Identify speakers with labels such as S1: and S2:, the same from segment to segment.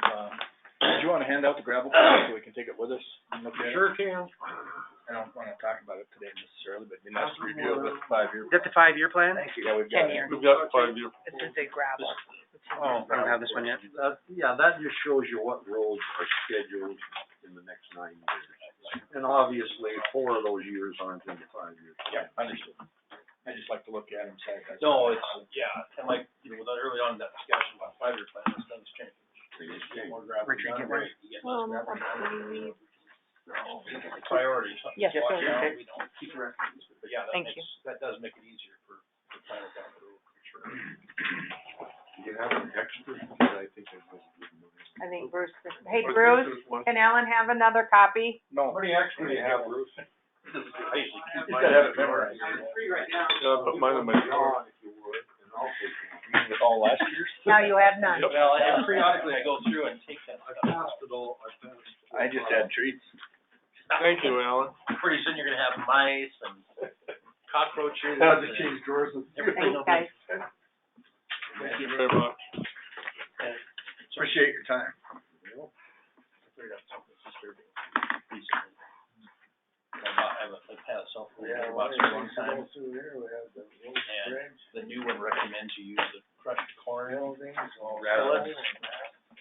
S1: Uh, do you wanna hand out the gravel pile so we can take it with us and look at it?
S2: Sure can.
S1: I don't wanna talk about it today necessarily, but it'd be nice to review it with five-year.
S3: Is that the five-year plan?
S1: Yeah, we've got
S4: Ten years.
S1: it.
S2: We've got five year.
S4: It's just a gravel.
S1: Oh,
S3: I don't have this one yet.
S2: That, yeah, that just shows you what roads are scheduled in the next nine years. And obviously, four of those years aren't in the five years.
S1: Yeah, understood. I just like to look at them, say. that's-
S5: No, it's, yeah, and like, you know, with that early on in that discussion about five-year plan, this things change.
S2: They just
S5: You get
S2: change.
S5: more gravel
S3: Richard,
S5: done,
S3: get one.
S5: right, you get less gravel done. It's a Priority, something
S4: Yes,
S5: to watch
S4: okay.
S5: out, we don't keep records, but yeah, that
S4: Thank you.
S5: makes, that does make it easier for, for planning down the road, for sure.
S2: You have an expert, but I think it was a good move.
S4: I think Bruce, hey Bruce, can Ellen have another copy?
S1: No.
S2: How many experts do you have, Bruce?
S5: I usually keep
S1: Just
S5: mine.
S1: gotta have it memorized.
S2: Yeah, but mine and my. If you would, and I'll take
S1: You mean With all last year's?
S4: Now you have none.
S5: Well, and periodically I go through and take that
S2: I
S5: stuff.
S2: passed it all, I passed. it
S1: I just
S2: all.
S1: had treats.
S5: Thank you.
S2: Alan.
S5: Pretty soon you're gonna have mice and cockroaches.
S2: Had to
S5: and-
S2: change drawers with you.
S5: Everything
S4: Thanks,
S5: will be-
S4: guys.
S2: Thank you very much.
S1: Appreciate your time.
S5: figured out something disturbing recently. I bought, I have a, like, had a cell phone that I bought for a long time, and the new one recommends you use the crushed corn. Rather than.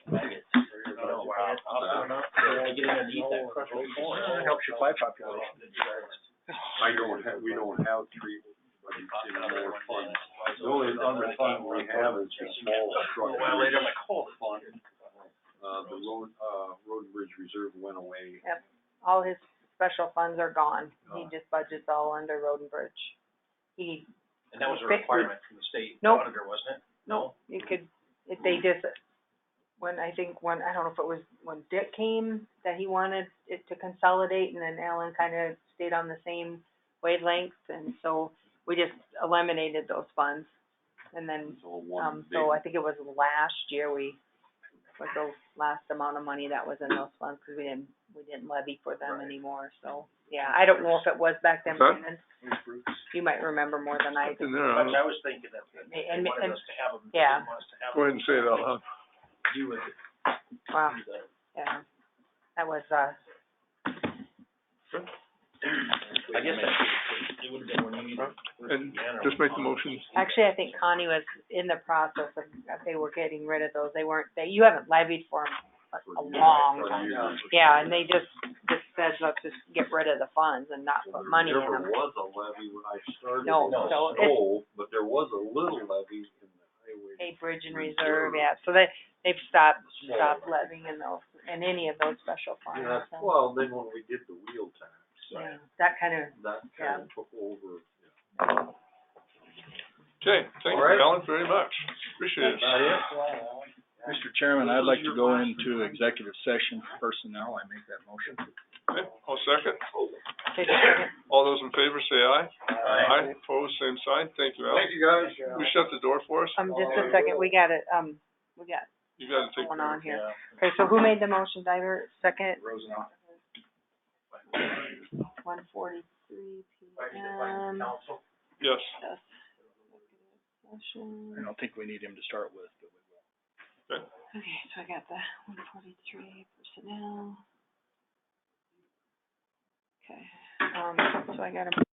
S5: maggots. I don't
S2: Oh,
S5: know, Oh, wow. I don't know, I get underneath that crushed corn.
S1: It helps your fly population.
S2: I don't have, we don't have three, but
S5: They
S2: it's
S5: pop
S2: in
S5: another
S2: our fund.
S5: one in.
S2: The only other fund we have is the small
S5: Well,
S2: truck.
S5: later, I'm like, hold it.
S2: Fund, uh, the road, uh, road and bridge reserve went away.
S4: All his special funds are gone. He just budgets all under road and bridge. He,
S5: And that was a
S4: Fix it.
S5: requirement from the state
S4: Nope.
S5: auditor, wasn't it? No.
S4: you could, if they just, when I think, when, I don't know if it was when Dick came, that he wanted it to consolidate and then Alan kind of stayed on the same wavelength and so we just eliminated those funds. And then
S2: It's all one
S4: Um,
S2: big.
S4: so I think it was last year we, was the last amount of money that was in those funds, cause we didn't, we didn't levy for them
S5: Right.
S4: anymore, so, yeah, I don't know if it was back then,
S6: Huh?
S4: Brandon. You might remember more than I do.
S6: Something there,
S5: But
S6: I'll
S5: I was thinking that, that they
S4: And-
S5: wanted
S4: and-
S5: us to have them, they
S4: yeah.
S5: didn't want us to have
S6: go ahead and say it out loud.
S5: them do with it.
S4: Wow,
S5: do the-
S4: yeah, that was, uh,
S5: I guess that, it would have been when you needed.
S6: And just make the motion.
S4: actually, I think Connie was in the process of, that they were getting rid of those, they weren't, they, you haven't levied for them a long
S2: For
S4: time.
S2: years.
S4: Yeah, and they just, just said, let's just get rid of the funds and not
S2: Well,
S4: put money in
S2: There
S4: them.
S2: never was a levy when I started.
S4: No,
S2: in the
S4: no, it's-
S2: snow, But there was a little levy in the highway.
S4: A bridge and
S2: Reserve.
S4: reserve, yeah, so they, they've stopped,
S2: Small.
S4: stopped levying in those, in any of those special
S2: And
S4: funds,
S2: that's-
S4: so,
S2: well, then when we did the wheel tax,
S4: yeah, that kind of,
S2: that kind of took over.
S6: Okay, thank
S2: All right.
S6: you, Alan, very much. Appreciate it.
S1: Mr. Chairman, I'd like to go into executive session for personnel. I make that motion.
S6: Okay, I'll second.
S4: take a second.
S6: All those in favor say aye. Aye. Opposed, same sign. Thank you, Alan.
S2: you, guys.
S6: We shut the door for us?
S4: um, just a second, we got it, um, we got
S6: You gotta take
S4: one
S6: care of
S4: on
S6: it.
S4: here. Okay, so who made the motion, Diver, second,
S1: Rosenau.
S4: one forty-three P M,
S6: Yes.
S1: I don't think we need him to start with, but we will.
S4: Okay, so I got the one forty-three personnel. Okay, um, so I got a